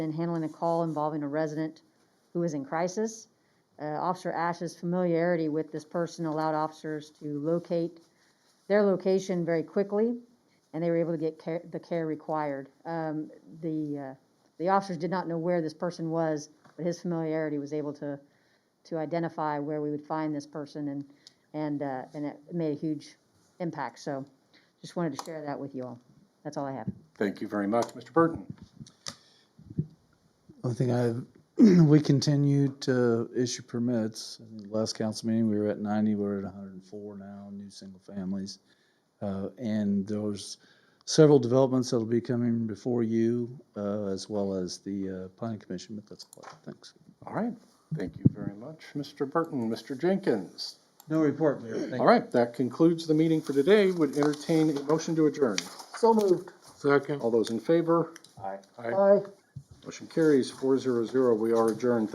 in handling a call involving a resident who is in crisis. Uh, Officer Ash's familiarity with this person allowed officers to locate their location very quickly, and they were able to get care, the care required. Um, the, uh, the officers did not know where this person was, but his familiarity was able to, to identify where we would find this person, and, and, uh, and it made a huge impact. So just wanted to share that with you all. That's all I have. Thank you very much, Mr. Burton. I think I, we continued to issue permits. I think Last council meeting, we were at ninety, we're at hundred and four now, new single families. Uh, and there's several developments that'll be coming before you, uh, as well as the, uh, planning commission, but that's all, thanks. All right, thank you very much, Mr. Burton, Mr. Jenkins. No report, Mayor. Thank All right, that concludes the meeting for today. Would entertain a motion to adjourn. So moved. Second. All those in favor? Aye. Aye. Motion carries four zero zero. We are adjourned.